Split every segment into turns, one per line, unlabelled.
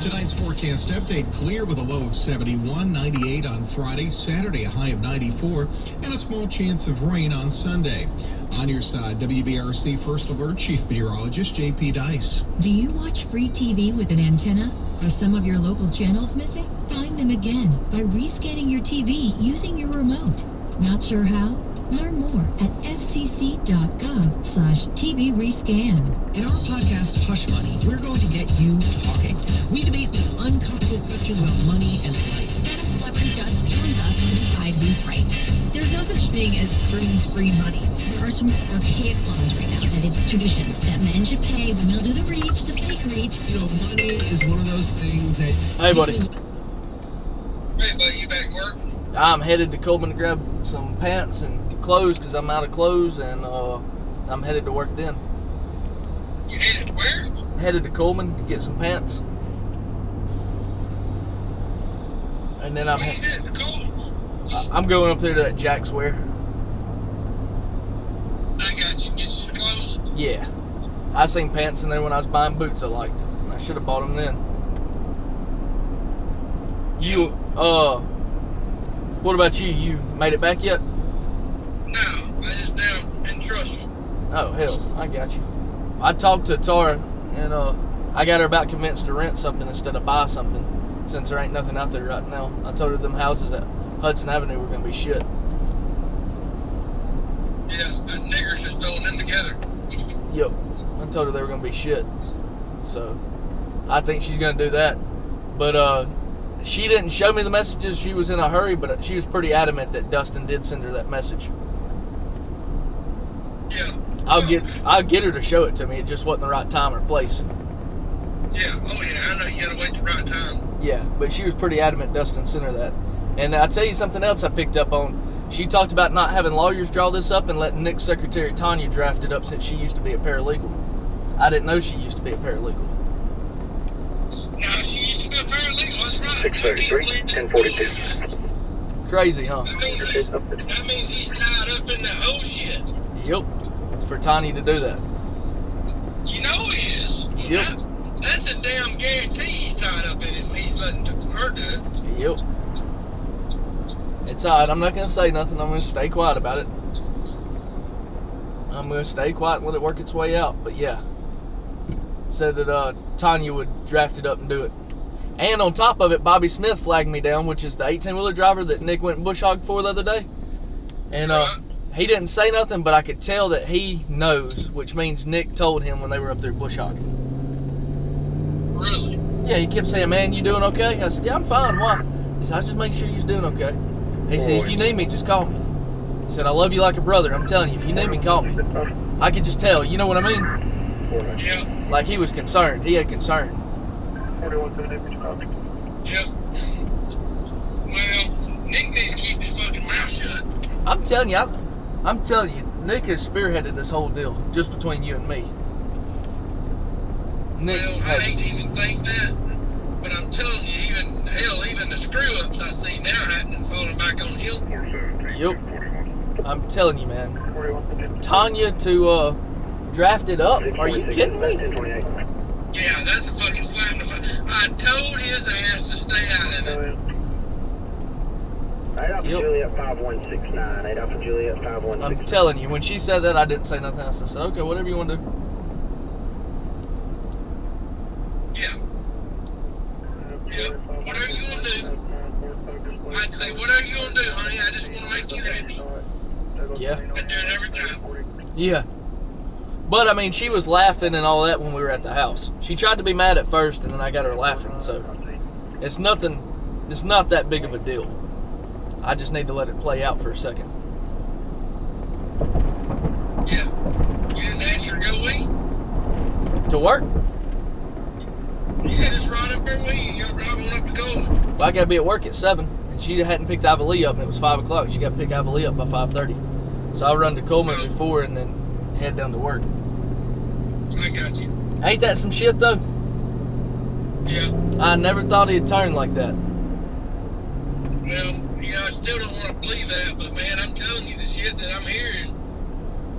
Tonight's forecast update clear with a low of 71, 98 on Friday, Saturday a high of 94, and a small chance of rain on Sunday. On your side, WBRC First Alert Chief Meteorologist JP Dice.
Do you watch free TV with an antenna? Are some of your local channels missing? Find them again by rescanning your TV using your remote. Not sure how? Learn more at fcc.gov slash TV rescan.
In our podcast, Hush Money, we're going to get you talking. We debate the uncomfortable questions about money and life.
Then a celebrity judge joins us to decide who's right. There's no such thing as strings-free money. There are some archaic laws right now that it's traditions that men should pay, women will do the reach, the fake reach.
You know, money is one of those things that.
Hey, buddy.
people-
Hey, buddy, you back at work?
I'm headed to Coleman to grab some pants and clothes because I'm out of clothes and uh, I'm headed to work then.
You headed where?
Headed to Coleman to get some pants. And then I'm Uh,
Where you
he-
headed? Cool.
I'm going up there to that Jack's Wear.
I got you. Get you clothes.
Yeah. I seen pants in there when I was buying boots I liked. And I should have bought them then. You, uh, what about you? You made it back yet?
No, I just down in Trussell.
Oh hell, I got you. I talked to Tara, and uh, I got her about convinced to rent something instead of buy something, since there ain't nothing out there right now. I told her them houses at Hudson Avenue were gonna be shit.
Yeah, the niggers just throwing them together.
Yep, I told her they were gonna be shit. So, I think she's gonna do that. But uh, she didn't show me the messages. She was in a hurry, but she was pretty adamant that Dustin did send her that message.
Yeah.
I'll get I'll get her to show it to me. It just wasn't the right time or place.
Yeah. Oh yeah. I know you gotta wait the right time.
Yeah, but she was pretty adamant Dustin sent her that. And I tell you something else I picked up on. She talked about not having lawyers draw this up and letting Nick's secretary Tanya draft it up since she used to be a paralegal. I didn't know she used to be a paralegal.
Now she used to be a paralegal. That's right.
633, 1042.
Crazy, huh?
That means he's, that means he's tied up in the whole shit.
Yep. For Tanya to do that.
You know he is.
Yep.
That- that's a damn guarantee he's tied up in it. if He's letting her do it.
Yep. It's alright. I'm not gonna say nothing. I'm gonna stay quiet about it. I'm gonna stay quiet and let it work its way out. But yeah, said that uh, Tanya would draft it up and do it. And on top of it, Bobby Smith flagged me down, which is the 18 wheeler driver that Nick went bush hog for the other day. And uh, he didn't say nothing, but I could tell that he knows, which means Nick told him when they were up there bush hogging.
Really?
Yeah, he kept saying, "Man, you doing okay?" I said, "Yeah, I'm fine. Why?" He said, "I just make sure you're doing okay." He said, "If you need me, just call me." He said, "I love you like a brother. I'm telling you, if you need me, call me." I could just tell. You know what I mean?
Yeah.
Like he was concerned. He had concern.
Yeah. Well, Nick needs to keep his fucking mouth shut.
I'm telling you, I, I'm telling you, Nick has spearheaded this whole deal just between you and me. Nick
Well, I
has.
hate to even think that, but I'm telling you, even hell, even the screw ups I see now happening falling back on him.
Yep. I'm telling you, man. Tanya to uh, draft it up. Are you kidding me?
Yeah, that's a fucking slam. To fu- I told his ass to stay out of it.
Eight Alpha
Yep.
Juliet 5169. Eight Alpha Juliet
I'm
5169.
telling you, when she said that, I didn't say nothing else. I said, okay, whatever you want to do.
Yeah. Yeah. Whatever you want to do, I'd say whatever you want to do, honey. I just want to make you happy.
Yeah.
I do it every time.
Yeah. But I mean, she was laughing and all that when we were at the house. She tried to be mad at first, and then I got her laughing. So it's nothing. It's not that big of a deal. I just need to let it play out for a second.
Yeah. You didn't ask her to go weed.
To work?
Yeah, just right up there with you. You're driving up to Coleman.
Well, I gotta be at work at seven, and she hadn't picked Ivy Lee up, and it was five o'clock. She got to pick Ivy Lee up by five thirty. So I run to Coleman before, and then head down to work.
I got you.
Ain't that some shit though?
Yeah.
I never thought he'd turn like that.
Well, you know, I still don't want to believe that, but man, I'm telling you, the shit that I'm hearing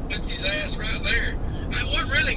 puts his ass right there. I, what really